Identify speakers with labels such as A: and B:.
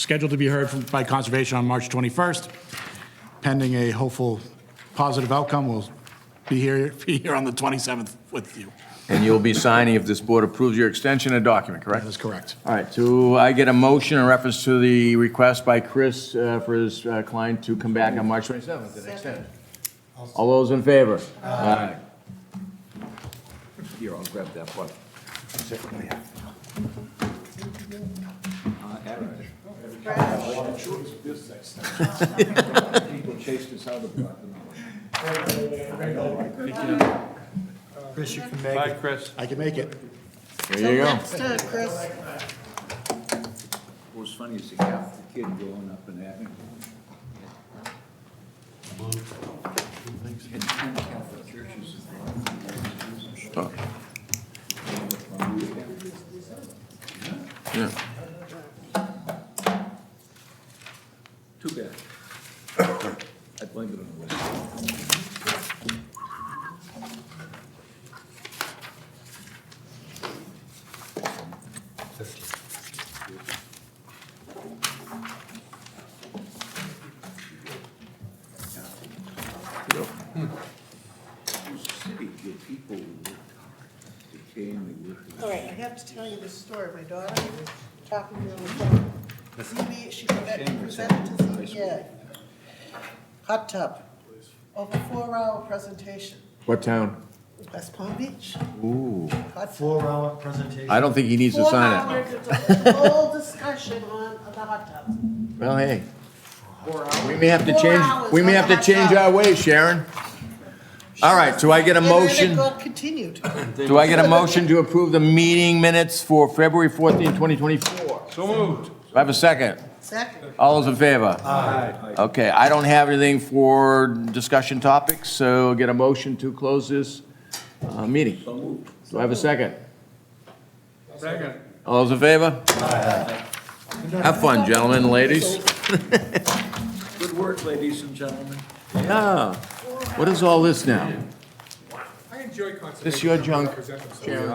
A: scheduled to be heard from- by Conservation on March 21st. Pending a hopeful positive outcome, we'll be here, be here on the 27th with you.
B: And you'll be signing if this board approves your extension, a document, correct?
A: That is correct.
B: All right, so I get a motion in reference to the request by Chris uh, for his uh, client to come back on March 27th and extend. All those in favor? Aye. Here, I'll grab that one. People chased us out of the
C: Chris, you can make
D: Bye,
C: it.
D: Chris.
A: I can make it.
B: There you go.
E: Till next time, Chris.
F: What's funny is the half the kid growing up in Abington. And ten Catholic churches. Too bad. I blame it on the West. City, the people who worked hard, they came, they worked.
E: All right, I have to tell you this story. My daughter was talking to me on the phone. ZB, she forgot to present to ZBA. Hot tub, over four-hour presentation,
B: What town?
E: West Palm Beach.
B: Ooh,
E: Hot tub.
C: Four-hour presentation.
B: I don't think he needs to
E: Four
B: sign it.
E: hours, it's a whole discussion on the hot tub.
B: Well, hey. We may have to change,
E: hours
B: we may
E: on
B: have to
E: that
B: change
E: job.
B: our ways, Sharon. All right, so I get a motion,
E: And then it got continued.
B: do I get a motion to approve the meeting minutes for February 14, 2024? So moved. Do I have a second?
E: Second,
B: All those in favor? Aye. Okay, I don't have anything for discussion topics, so get a motion to close this uh, meeting. Do I have a second?
D: Second.
B: All those in favor? Have fun, gentlemen and ladies.
F: Good work, ladies and gentlemen.
B: Yeah, what is all this now?
G: I enjoy conservation.
B: This your junk,
G: Present themselves.
B: Sharon?